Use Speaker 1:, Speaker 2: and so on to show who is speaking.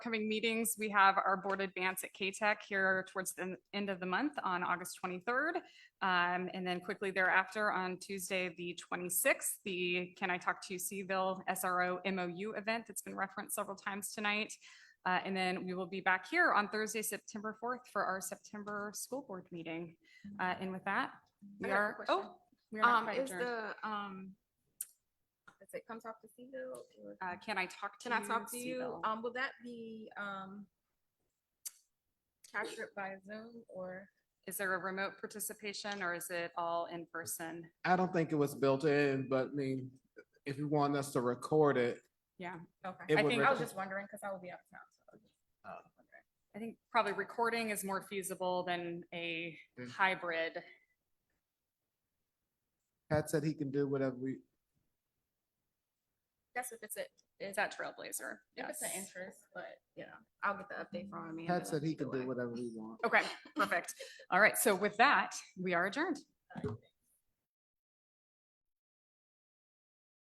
Speaker 1: upcoming meetings, we have our board advance at K-Tech here towards the end of the month on August twenty-third. Um, and then quickly thereafter, on Tuesday, the twenty-sixth, the Can I Talk to You Seville SRO MOU event that's been referenced several times tonight. Uh, and then we will be back here on Thursday, September fourth for our September school board meeting. Uh, and with that,
Speaker 2: I
Speaker 1: we
Speaker 2: got a
Speaker 1: are,
Speaker 2: question.
Speaker 1: oh. we are not
Speaker 2: Um,
Speaker 1: quite
Speaker 2: is
Speaker 1: adjourned.
Speaker 2: the, um, is it come talk to Seville? or-
Speaker 1: Uh, Can I Talk to
Speaker 2: Can
Speaker 1: You?
Speaker 2: I talk to you?
Speaker 1: Seville.
Speaker 2: Um, will that be, um, captured by Zoom or?
Speaker 1: Is there a remote participation or is it all in person?
Speaker 3: I don't think it was built in, but I mean, if you want us to record it,
Speaker 2: Okay.
Speaker 3: It
Speaker 1: I
Speaker 3: would
Speaker 1: think,
Speaker 2: I was just wondering, cause I will be out of town. so I was just wondering.
Speaker 1: I think probably recording is more feasible than a
Speaker 3: Mm.
Speaker 1: hybrid.
Speaker 3: Pat said he can do whatever we,
Speaker 2: That's if it's a,
Speaker 1: Is that Trailblazer?
Speaker 2: if
Speaker 1: Yes. Mm-hmm.
Speaker 2: it's an interest, but, you know, I'll get the update from Amanda.
Speaker 3: Pat said he
Speaker 2: either
Speaker 3: can do
Speaker 2: way.
Speaker 3: whatever we want.
Speaker 1: Okay, perfect. All right. So with that, we are adjourned.
Speaker 2: All right, thanks.